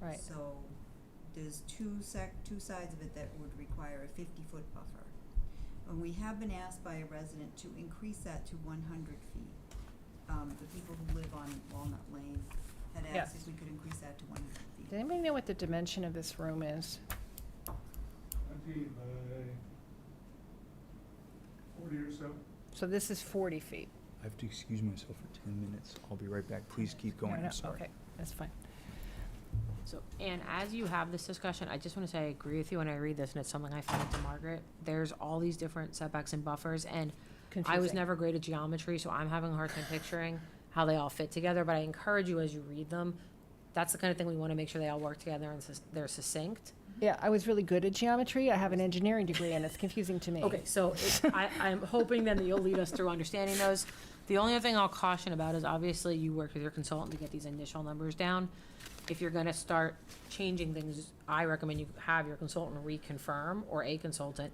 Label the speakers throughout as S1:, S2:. S1: Right.
S2: So there's two sec, two sides of it that would require a fifty-foot buffer. And we have been asked by a resident to increase that to one hundred feet. Um, the people who live on Walnut Lane had asked
S1: Yes.
S2: if we could increase that to one hundred feet.
S1: Does anybody know what the dimension of this room is?
S3: Twenty by forty or so.
S1: So this is forty feet.
S4: I have to excuse myself for ten minutes. I'll be right back. Please keep
S1: No,
S4: going.
S1: no,
S4: I'm sorry.
S1: Okay, that's fine.
S5: So, and as you have this discussion, I just want to say I agree with you when I read this, and it's something I found to Margaret. There's all these different setbacks and buffers, and I was
S1: Confusing.
S5: never great at geometry, so I'm having a hard time picturing how they all fit together, but I encourage you as you read them, that's the kind of thing we want to make sure they all work together and sus- they're succinct.
S1: Yeah, I was really good at geometry. I have an engineering degree and it's confusing to me.
S5: Okay, so it- I, I'm hoping then that you'll lead us through understanding those. The only other thing I'll caution about is obviously you worked with your consultant to get these initial numbers down. If you're gonna start changing things, I recommend you have your consultant reconfirm, or a consultant,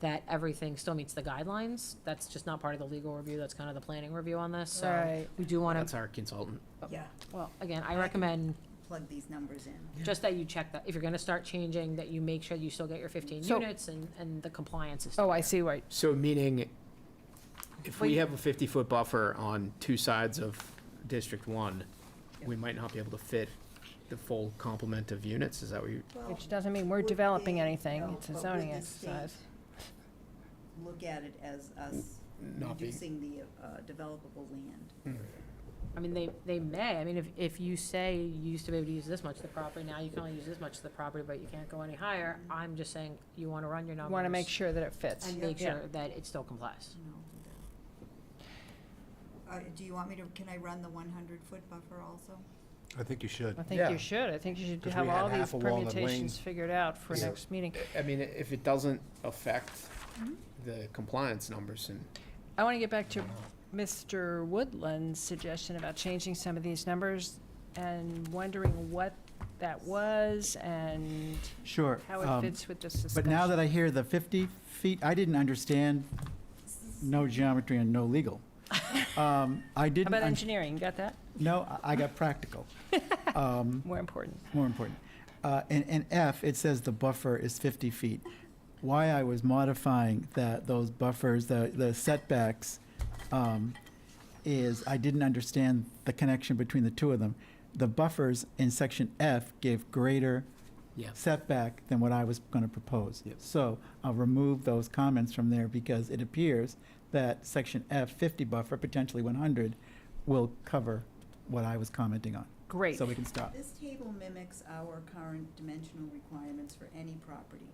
S5: that everything still meets the guidelines. That's just not part of the legal review, that's kind of the planning review on this, so
S1: Right.
S5: we do wanna,
S6: That's our consultant.
S2: Yeah,
S5: well, again, I recommend
S2: plug these numbers in.
S5: just that you check that, if you're gonna start changing, that you make sure you still get your fifteen
S1: So-
S5: units and, and the compliance is.
S1: Oh, I see, right.
S6: So meaning, if we
S1: Wait.
S6: have a 50-foot buffer on two sides of District 1, we might not be able to fit the full complement of units, is that what you,
S1: Which doesn't mean we're
S2: Would
S1: developing
S2: they-
S1: anything.
S2: no,
S1: It's a
S2: but would
S1: zoning
S2: the
S1: exercise.
S2: Look at it as us
S6: not being-
S2: reducing the, uh, developable land.
S5: I mean, they, they may, I mean, if, if you say you used to be able to use this much of the property, now you can only use this much of the property, but you can't go any higher, I'm just saying, you wanna run your
S1: You
S5: numbers.
S1: want to make sure that it fits.
S5: And make
S1: Yeah.
S5: sure that it still complies.
S2: No, do that. Uh, do you want me to, can I run the one hundred foot buffer also?
S7: I think you should.
S1: I think
S6: Yeah.
S1: you should. I think you should
S7: 'Cause
S1: have
S7: we had
S1: all these
S7: half of Walnut
S1: permutations
S7: Lane.
S1: figured out for
S6: Yeah.
S1: next meeting.
S6: I mean, if it doesn't affect
S1: Mm-hmm.
S6: the compliance numbers and
S1: I want to get back to Mr. Woodland's suggestion about changing some of these numbers and wondering what that was and
S8: Sure.
S1: how it
S8: um,
S1: fits with this discussion.
S8: But now that I hear the 50 feet, I didn't understand no geometry and no legal. Um, I
S1: How
S8: didn't,
S1: about
S8: un-
S1: engineering? You got that?
S8: no, I- I got practical,
S1: More important.
S8: more important. Uh, And, and F, it says the buffer is 50 feet. Why I was modifying that, those buffers, the the setbacks, um, is I didn't understand the connection between the two of them. The buffers in section F gave greater
S6: Yeah.
S8: setback than what I was going to propose. So I'll remove those comments from there because it appears that section F 50 buffer, potentially 100, will cover what I was commenting on.
S1: Great.
S8: So we can stop.
S2: This table mimics our current dimensional requirements for any property.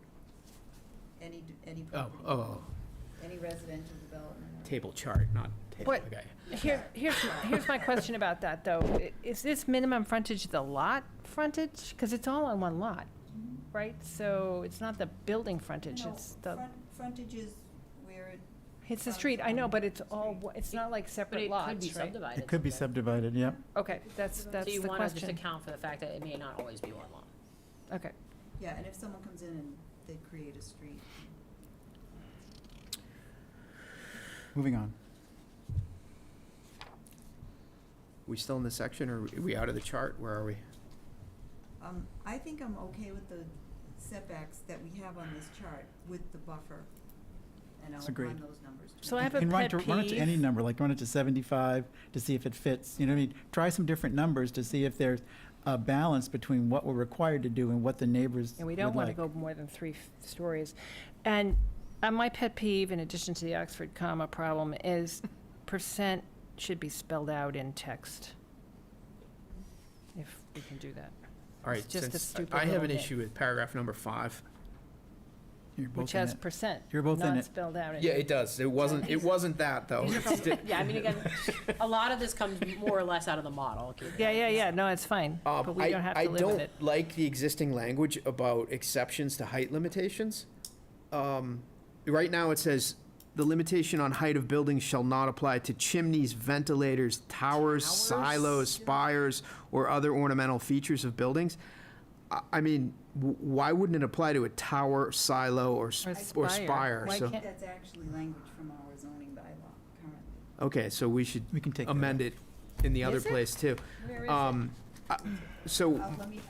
S2: Any, d- any
S6: Oh,
S2: property.
S6: oh,
S2: Any residential development.
S6: table chart, not table,
S1: What-
S6: okay.
S1: Here, here's, my- here's my question about that, though. I- Is this minimum frontage the lot frontage? Because it's all on one lot, right? So it's not the building frontage,
S2: No,
S1: it's the,
S2: front- Frontage is where it,
S1: it's the
S2: front
S1: street, I know,
S2: on
S1: but it's all,
S2: street.
S1: one- it's not like
S5: But
S1: separate
S5: it could be
S1: lots, right?
S5: subdivided.
S8: It could be
S5: someday.
S8: subdivided, yep.
S1: Okay, that's, that's
S5: So you
S1: the
S5: wanna just
S1: question.
S5: account for the fact that it may not always be one lot.
S1: Okay.
S2: yeah, and if someone comes in and they create a street.
S8: Moving on.
S6: We still in this section, or are we out of the chart, where are we?
S2: Um, I think I'm okay with the setbacks that we have on this chart with the buffer. And I'll
S8: It's
S2: run
S8: agreed.
S2: those numbers.
S1: So
S2: tomorrow.
S1: I have a
S8: And run it
S1: pet
S8: to- Run it to any
S1: peeve.
S8: number, like run it to 75 to see if it fits, you know what I mean? Try some different numbers to see if there's a balance between what we're required to do and what the neighbors
S1: And we don't
S8: would
S1: want to
S8: like.
S1: go more than three f- stories. And uh, my pet peeve, in addition to the Oxford comma problem, is percent should be spelled out in text, if we can do that.
S6: All right,
S1: It's just a
S6: since I-
S1: stupid
S6: I have
S1: little
S6: an
S1: bit.
S6: issue with paragraph number five.
S8: You're
S1: Which
S8: both in
S1: has
S8: it.
S1: percent.
S8: You're both in
S1: Not
S8: it.
S1: spelled out in.
S6: Yeah, it does, it wasn't, it wasn't
S8: Oh,
S6: that, though.
S5: These are
S6: It's di-
S5: from- Yeah, I mean, again, a lot of this comes more or less out of the model. okay?
S1: Yeah, yeah, yeah, no, it's fine,
S6: Um,
S1: but we
S6: I-
S1: don't have to live
S6: I
S1: with it.
S6: don't like the existing language about exceptions to height limitations. Um, Right now, it says, "The limitation on height of buildings shall not apply to chimneys, ventilators, towers, silos, spires, or other ornamental features of buildings." I- I mean, w- why wouldn't it apply to a tower, silo, or s-
S1: Or spire.
S6: or spire?
S1: Why
S6: So-
S1: can't-
S2: That's actually language from our zoning bylaw currently.
S6: Okay, so we should
S8: We can take that out.
S6: amend it in the other
S1: Is oh, it?
S6: place, too.
S1: Where is it?
S6: Um, I- So
S2: Uh, let me,